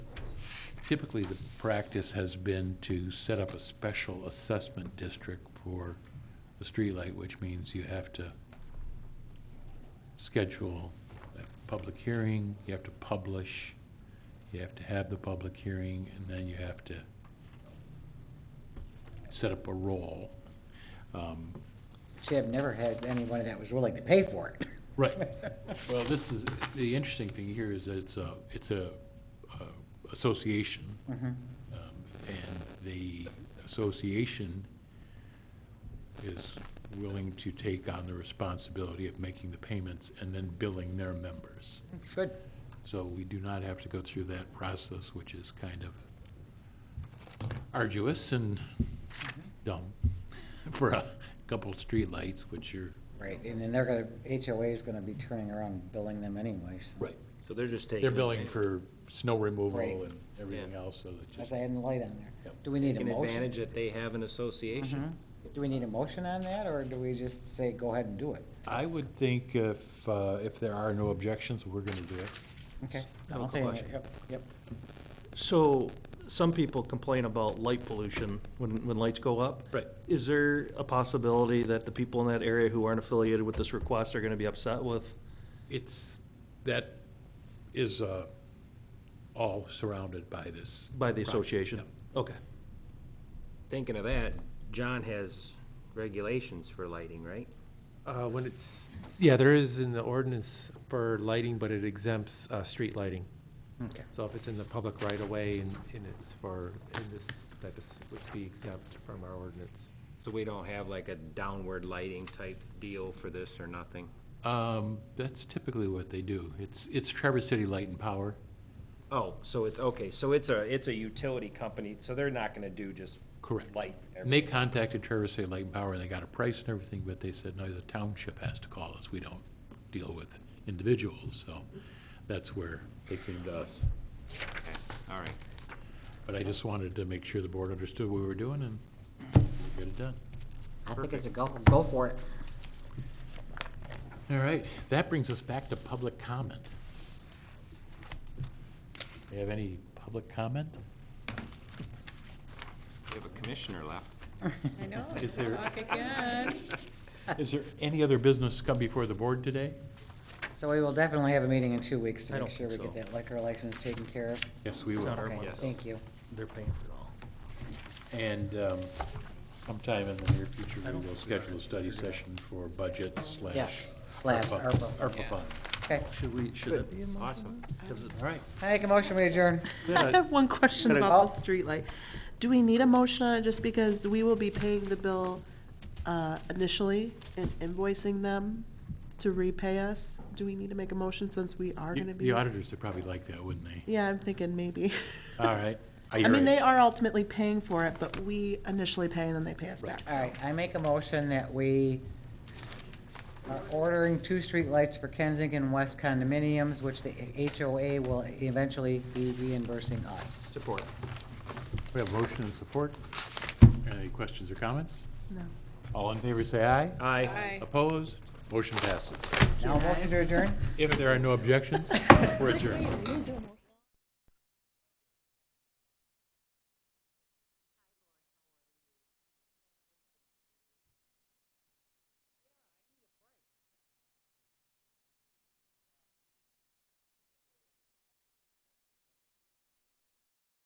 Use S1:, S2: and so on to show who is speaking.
S1: typically the practice has been to set up a special assessment district for the streetlight, which means you have to schedule a public hearing, you have to publish, you have to have the public hearing, and then you have to set up a roll.
S2: See, I've never had anyone that was willing to pay for it.
S1: Right. Well, this is, the interesting thing here is that it's a, it's a uh, association.
S2: Mm-hmm.
S1: Um, And the association is willing to take on the responsibility of making the payments and then billing their members.
S2: Good.
S1: So we do not have to go through that process, which is kind of arduous and dumb for a couple of streetlights, which are.
S2: Right, and then they're gonna, HOA is gonna be turning around and billing them anyways.
S1: Right.
S3: So they're just taking.
S1: They're billing for snow removal
S2: Right.
S1: and everything else, so that
S2: That's
S1: just,
S2: why I had the light on there.
S1: Yep.
S2: Do we need a
S3: Taking
S2: motion? Mm-hmm.
S3: advantage that they have an association.
S2: Do we need a motion on that, or do we just say, go ahead and do it?
S1: I would think if, uh, if there are no objections, we're gonna do it.
S2: Okay.
S4: No
S2: I'll say that.
S4: question.
S2: Yep, yep.
S4: So, some people complain about light pollution when, when lights go up.
S1: Right.
S4: Is there a possibility that the people in that area who aren't affiliated with this request are gonna be upset with?
S1: It's, that is, uh, all surrounded by this.
S4: By the
S1: project,
S4: association?
S1: yeah.
S4: Okay.
S3: Thinking of that, John has regulations for lighting, right?
S5: Uh, When it's, yeah, there is in the ordinance for lighting, but it exempts uh, street lighting.
S2: Okay.
S5: So if it's in the public right-of-way and and it's for, in this type of, s- would be exempt from our ordinance.
S3: So we don't have like a downward lighting type deal for this or nothing.
S1: Um, that's typically what they do. It's, it's Traverse City Light and Power.
S3: Oh, so it's, okay, so it's a, it's a utility company, so they're not gonna do just.
S1: Correct.
S3: Light.
S1: And they contacted Traverse City Light and Power, and they got a price and everything, but they said, no, the township has to call us. We don't deal with individuals, so that's where they came to us.
S3: Okay, All right.
S1: But I just wanted to make sure the board understood what we were doing and get it done.
S2: I think it's a go, go for it.
S1: All right, that brings us back to public comment. Do you have any public comment?
S3: We have a commissioner left.
S6: I know,
S1: Is there-
S6: talk again.
S1: Is there any other business come before the board today?
S2: So we will definitely have a meeting in two weeks
S4: I
S2: to make
S4: don't
S2: sure we
S4: think
S2: get
S4: so.
S2: that liquor license taken care of.
S1: Yes, we will.
S4: Not our
S2: Okay,
S4: Yes.
S2: Thank you.
S4: They're paying for it all.
S1: And um, sometime in the near future, we will schedule a study session for budget slash.
S2: Yes, slash ARPA.
S1: ARPA funds.
S2: Okay,
S4: Should we, should it be in motion?
S3: Awesome.
S1: All right.
S2: I make a motion, we adjourn.
S7: I have one question
S4: Got it.
S7: about the streetlight. Do we need a motion on it just because we will be paying the bill uh, initially and invoicing them to repay us? Do we need to make a motion since we are going to be?
S1: The auditors would probably like that, wouldn't they?
S7: Yeah, I'm thinking maybe.
S1: All right.
S7: I mean, they are ultimately paying for it, but we initially pay and then they pay us back.
S2: All right, I make a motion that we are ordering two streetlights for Kensington West condominiums, which the HOA will eventually be reimbursing us.
S3: Support.
S1: We have motion and support. Any questions or comments?
S7: No.
S1: All in favor, say aye.
S3: Aye.
S6: Bye.
S1: Opposed? Motion passes.
S2: Now, motion to adjourn?
S1: If there are no objections, we're adjourned.